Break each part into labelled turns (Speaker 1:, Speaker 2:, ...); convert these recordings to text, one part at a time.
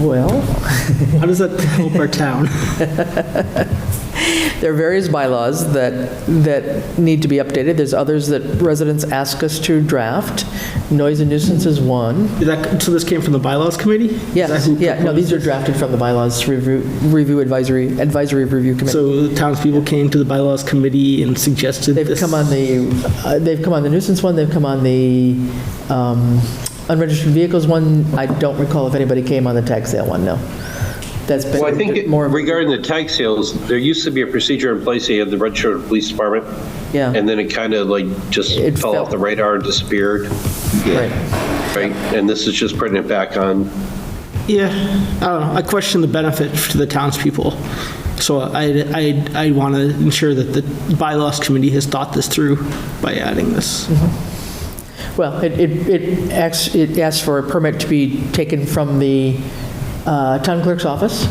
Speaker 1: Well,
Speaker 2: How does that help our town?
Speaker 1: there are various bylaws that, that need to be updated. There's others that residents ask us to draft. Noise and nuisance is one.
Speaker 2: Did that- So this came from the bylaws committee? Is that
Speaker 1: Yes,
Speaker 2: who
Speaker 1: yeah, no, these are drafted from the bylaws, review review advisory, advisory review
Speaker 2: proposed-
Speaker 1: committee.
Speaker 2: So the townspeople came to the bylaws committee and suggested this?
Speaker 1: They've come on the, uh, they've come on the nuisance one, they've come on the um, unregistered vehicles one. I don't recall if anybody came on the tax sale one, no. That's been
Speaker 3: Well, I think it-
Speaker 1: more. of a-
Speaker 3: regarding the tag sales, there used to be a procedure in place, you had the registered police department.
Speaker 1: Yeah.
Speaker 3: And then it kind of like just
Speaker 1: It
Speaker 3: fell off
Speaker 1: fell.
Speaker 3: the radar and disappeared,
Speaker 1: Right.
Speaker 3: right? And this is just putting it back on.
Speaker 2: Yeah, I don't know, I question the benefit to the townspeople. So I, I, I want to ensure that the bylaws committee has thought this through by adding this.
Speaker 1: Mm-hmm. Well, it, it, it asks, it asks for a permit to be taken from the uh, town clerk's office,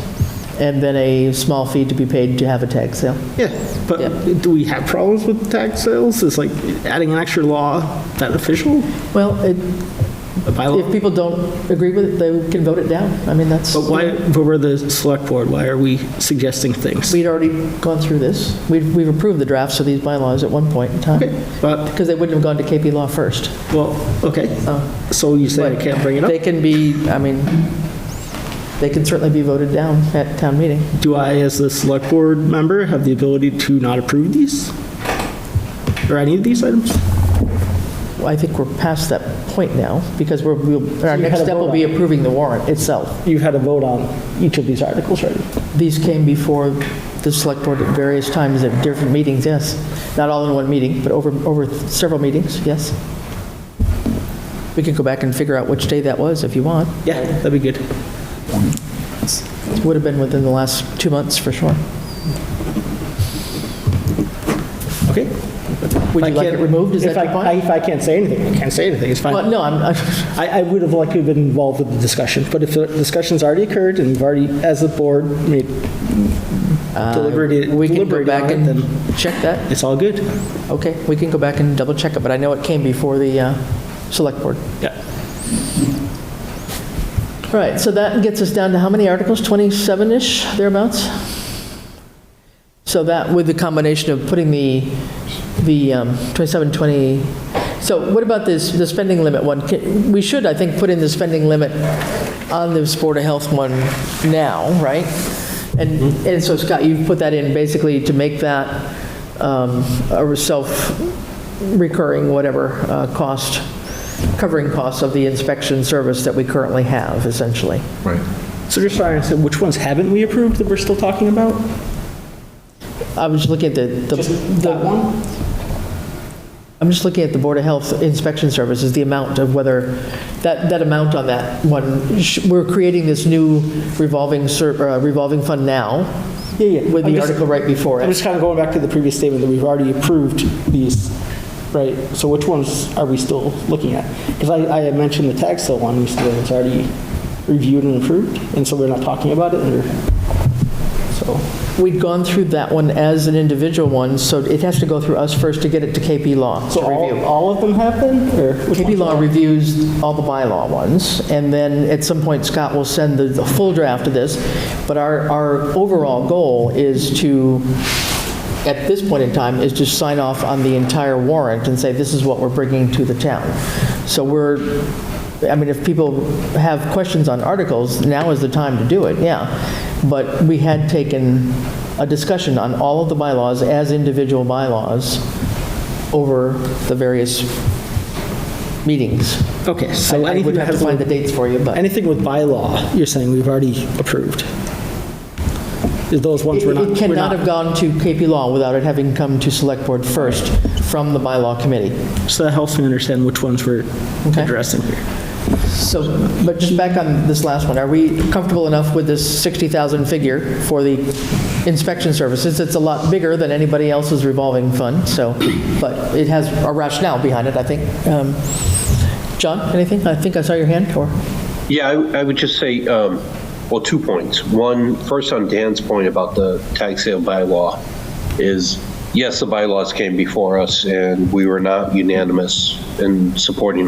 Speaker 1: and then a small fee to be paid to have a tag sale.
Speaker 2: Yeah, but do we have problems with tax sales? Is like adding an extra law that official,
Speaker 1: Well, it,
Speaker 2: a bylaw?
Speaker 1: if people don't agree with it, they can vote it down. I mean, that's,
Speaker 2: But why, but we're the select board, why are we suggesting things?
Speaker 1: we'd already gone through this. We've, we've approved the drafts of these bylaws at one point in time,
Speaker 2: Okay, But,
Speaker 1: because they wouldn't have gone to KP Law first.
Speaker 2: well, okay, so Oh, you say I can't bring it
Speaker 1: They
Speaker 2: up?
Speaker 1: can be, I mean, they can certainly be voted down at town meeting.
Speaker 2: Do I, as the select board member, have the ability to not approve these? Or any of these items?
Speaker 1: Well, I think we're past that point now, because we're, we'll- our next
Speaker 2: had a
Speaker 1: step
Speaker 2: vote
Speaker 1: will
Speaker 2: on
Speaker 1: be
Speaker 2: it.
Speaker 1: approving the warrant itself.
Speaker 2: You've had a vote on each of these articles already.
Speaker 1: These came before the select board at various times at different meetings, yes. Not all in one meeting, but over, over several meetings, yes. We can go back and figure out which day that was if you want.
Speaker 2: Yeah, that'd be good.
Speaker 1: It Would have been within the last two months for sure.
Speaker 2: Okay.
Speaker 1: Would
Speaker 2: I
Speaker 1: you like it
Speaker 2: can't-
Speaker 1: removed, is
Speaker 2: if
Speaker 1: that your
Speaker 2: I-
Speaker 1: point?
Speaker 2: I- If I can't say anything, I can't say anything, it's
Speaker 1: Well,
Speaker 2: fine.
Speaker 1: no, I'm, I-
Speaker 2: I, I would have liked to have been involved with the discussion, but if the discussion's already occurred and we've already, as a board, made deliberated,
Speaker 1: uh, we can go
Speaker 2: deliberated
Speaker 1: back
Speaker 2: on it,
Speaker 1: and
Speaker 2: then
Speaker 1: check that.
Speaker 2: it's all good.
Speaker 1: Okay, we can go back and double check it, but I know it came before the uh, select board.
Speaker 2: Yeah.
Speaker 1: All right, so that gets us down to how many articles? 27-ish, thereabouts? So that, with the combination of putting the, the um, 27, 20, so what about this, the spending limit one? Can- We should, I think, put in the spending limit on this Board of Health one now, right? And, and so Scott, you've put that in basically to make that um, a self-recurring, whatever, uh, cost, covering costs of the inspection service that we currently have, essentially.
Speaker 4: Right.
Speaker 2: So just trying to say, which ones haven't we approved that we're still talking about?
Speaker 1: I was looking at the, the-
Speaker 2: That one?
Speaker 1: I'm just looking at the Board of Health Inspection Services, the amount of whether, that, that amount on that one, sh- we're creating this new revolving, ser- uh, revolving fund now,
Speaker 2: Yeah, yeah.
Speaker 1: with
Speaker 2: I'm
Speaker 1: the
Speaker 2: just-
Speaker 1: article right before
Speaker 2: I'm
Speaker 1: it.
Speaker 2: just kind of going back to the previous statement that we've already approved these, right? So which ones are we still looking at? Because I, I had mentioned the tag sale one, we said it's already reviewed and approved, and so we're not talking about it, or, so,
Speaker 1: We'd gone through that one as an individual one, so it has to go through us first to get it to KP Law to
Speaker 2: so all,
Speaker 1: review.
Speaker 2: all of them happen, or? which
Speaker 1: KP
Speaker 2: ones?
Speaker 1: Law reviews all the bylaw ones, and then at some point Scott will send the, the full draft of this, but our, our overall goal is to at this point in time, is just sign off on the entire warrant and say, this is what we're bringing to the town. So we're, I mean, if people have questions on articles, now is the time to do it, yeah. But we had taken a discussion on all of the bylaws as individual bylaws over the various meetings.
Speaker 2: Okay,
Speaker 1: I
Speaker 2: so
Speaker 1: I
Speaker 2: anything
Speaker 1: would have
Speaker 2: that
Speaker 1: to
Speaker 2: has,
Speaker 1: find the dates for you, but
Speaker 2: anything with bylaw, you're saying we've already approved? Is Those ones we're not,
Speaker 1: it
Speaker 2: we're
Speaker 1: cannot have
Speaker 2: not,
Speaker 1: gone to KP Law without it having come to Select Board first from the bylaw committee.
Speaker 2: so that helps me understand which ones we're
Speaker 1: Okay.
Speaker 2: addressing here.
Speaker 1: So, but just back on this last one, are we comfortable enough with this 60,000 figure for the inspection services? It's a lot bigger than anybody else's revolving fund, so, but it has a rationale behind it, I think. Um, John, anything? I think I saw your hand, or?
Speaker 3: Yeah, I, I would just say, um, well, two points. One, first on Dan's point about the tag sale bylaw is, yes, the bylaws came before us and we were not unanimous in supporting